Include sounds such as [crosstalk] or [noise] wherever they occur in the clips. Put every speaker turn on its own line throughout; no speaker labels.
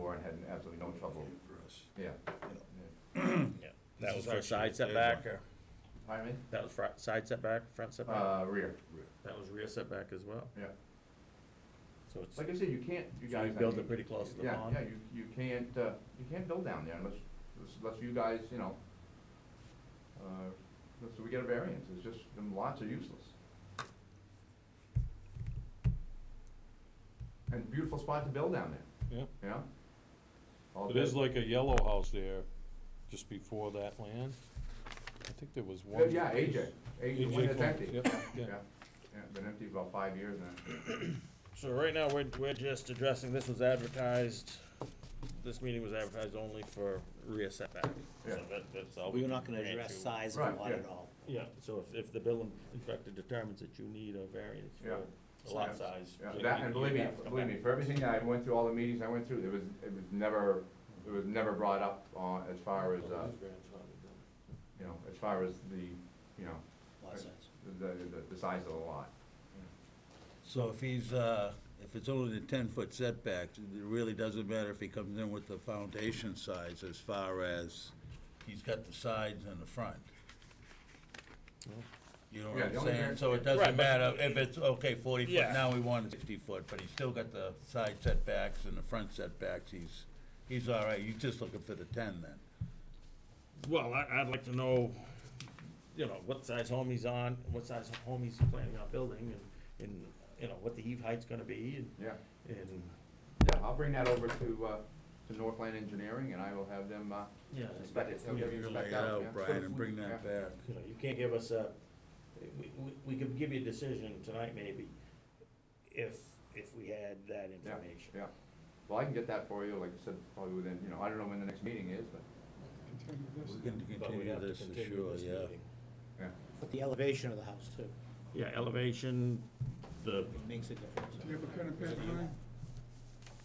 had absolutely no trouble.
for us.
Yeah.
Yeah.
This
That
is
was for
actually
side
the third
setback,
one.
or,
Pardon me?
that was front, side setback, front setback?
Uh, rear,
That was rear setback as well,
yeah.
so it's,
Like I said, you can't, you
so
guys.
you
I
built
mean,
it pretty close to the
Yeah, yeah,
pond?
you, you can't, uh, you can't build down there unless, unless you guys, you know, uh, so we get a variance, it's just, them lots are useless. And beautiful spot to build down there,
Yeah,
you know? All
it is
good.
like a yellow house there, just before that land. I think there was
Yeah,
one.
Yeah, AJ, AJ, when it's
Cole,
empty.
yep,
Yeah, yeah, been empty about five years now.
So right now, we're, we're just addressing, this was advertised, this meeting was advertised only for rear setback.
Yeah.
So that, that's all.
We're
can
not gonna
grant
address
you.
size
Right,
of lot at
yeah.
all.
Yeah, so if, if the building inspector determines that you need a variance
Yeah.
for lot size.
Yeah,
you-
that, and
you
believe
have to
me,
come
believe me,
back.
for everything that I went through, all the meetings I went through, there was, it was never, it was never brought up on, as far as, uh, you know, as far as the, you know,
Lot size.
the, the, the size of the lot.
So if he's, uh, if it's only the 10-foot setback, it really doesn't matter if he comes in with the foundation size as far as he's got the sides and the front. You know what
Yeah,
I'm
the only
saying?
variance-
So it
Right,
doesn't
but-
matter if it's, okay, 40 foot,
Yeah.
now we want 60 foot, but he's still got the side setbacks and the front setbacks, he's, he's all right, you're just looking for the 10 then.
Well, I, I'd like to know, you know, what size home he's on, what size home he's planning on building, and, and, you know, what the heave height's gonna be, and,
Yeah,
and,
yeah, I'll bring that over to, uh, to Northland Engineering, and I will have them, uh,
yeah.
inspect it. They'll give you a
Lay
spec
it
out, yeah.
out, "Oh, Brian, and bring that
Yeah.
back.
You know, you can't give us a, we, we, we could give you a decision tonight maybe, if, if we had that
Yeah,
information.
yeah. Well, I can get that for you, like I said, probably within, you know, I don't know when the next meeting is, but,
We're going to
But we
continue
have to
this for
continue
sure,
this
yeah.
meeting.
yeah.
But the elevation of the house too,
Yeah, elevation, the,
it makes a difference.
Do you have a pen and paper, Ryan?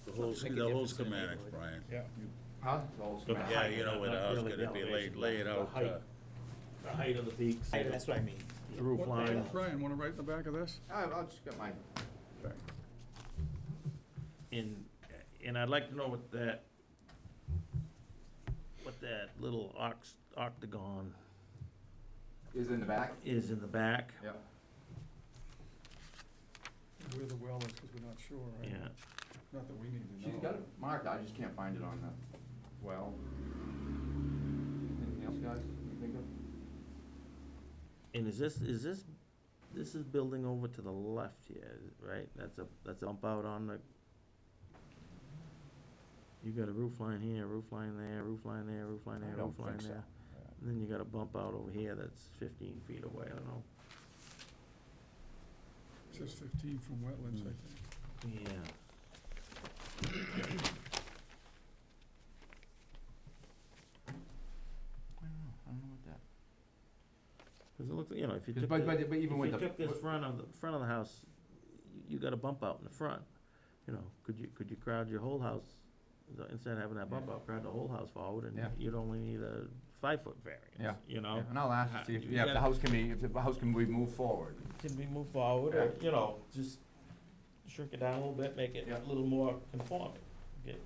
The whole,
Make a
the whole
difference in the
schematics,
neighborhood.
Brian.
Huh? It's all schematic.
Yeah, you know, what I was
Not really
gonna be, lay,
elevation,
lay it
the
out,
height.
uh,
the height of the peaks,
I- That's
the
what I mean.
roof line.
Ryan, wanna write in the back of this?
I- I'll just get mine.
And, and I'd like to know what that, what that little ox, octagon
Is in the back?
is in the back.
Yeah.
Where the well is, because we're not sure, right?
Yeah,
Not that we need to know.
She's got it marked, I just can't find it on the well. Anything else, guys, you think of?
and is this, is this, this is building over to the left here, right? That's a, that's a bump out on the, you got a roof line here, roof line there, roof line there, roof line
I
there,
don't
roof line
think so.
there. And then you got a bump out over here that's fifteen feet away, I don't know.
It says 15 from wetlands, I think.
Yeah.
I don't know, I don't know what that.
Because it looks, you know, if you
Because
took,
but-
the-
but- but even
if
with
you
the-
took this front of the front of the house, you, you got a bump out in the front. You know, could you could you crowd your whole house the- instead of having that bump out? Crowd the whole house forward, and
Yeah.
you'd only need a five foot variance.
Yeah.
you know,
And I'll ask, to see if,
Oh. Uh, You
yeah, if the
gotta-
house can be, if the house can be moved forward.
can we move forward, or
Yeah.
you know, just shrink it down a little bit, make it
Yeah.
a little more conforming. Get-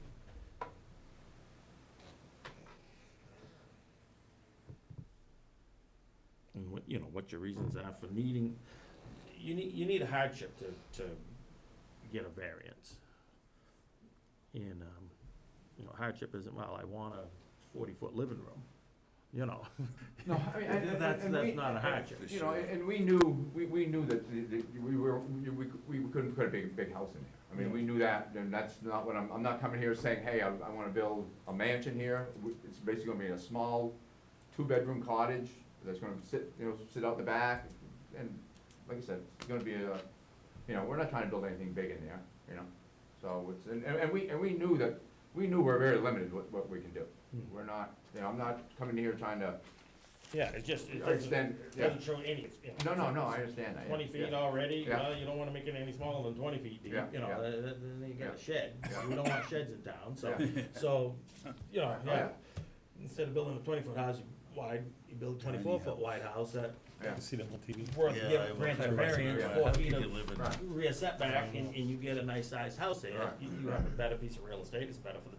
And what, you know, what your reasons are for needing, you need, you need a hardship to, to get a variance. And, um, you know, hardship isn't, well, I want a forty-foot living room, you know?
No, I mean, and- and-
That's-
and
that's
we-
not a hardship.
You know, and and we knew, we, we knew that the- the- we were, we, we we couldn't put a big, big house in there. I mean, we knew that, and that's not what I'm, I'm not coming here saying, hey, I, I wanna build a mansion here. We- It's basically gonna be a small, two-bedroom cottage that's gonna sit, you know, sit out the back. And like I said, it's gonna be a, you know, we're not trying to build anything big in there, you know? So it's, and, and and we, and we knew that, we knew we're very limited what, what we can do. We're not, you know, I'm not coming here trying to
Yeah, it just, it
I understand,
doesn't, it
yeah.
doesn't show any, you know.
No, no, no, I understand that. yeah,
20 feet
yeah.
already,
Yeah.
well, you don't want to make it any smaller than 20 feet deep, you
Yeah,
know,
yeah.
th- th- then you got
Yeah.
a shed. We don't want sheds in town, so,
Yeah.
[laughs] so, you know,
Oh, Yeah.
yeah. Instead of building a 20-foot house wide, you build a 24-foot wide house that
Yeah.
see that on TV.
worth
uh, Yeah, I
giving grant
was-
a variance,
Yeah.
four
I think
feet
you live in-
of rear setback, and and you get a nice-sized house there.
Right.
You you have a better piece of real estate, it's better for the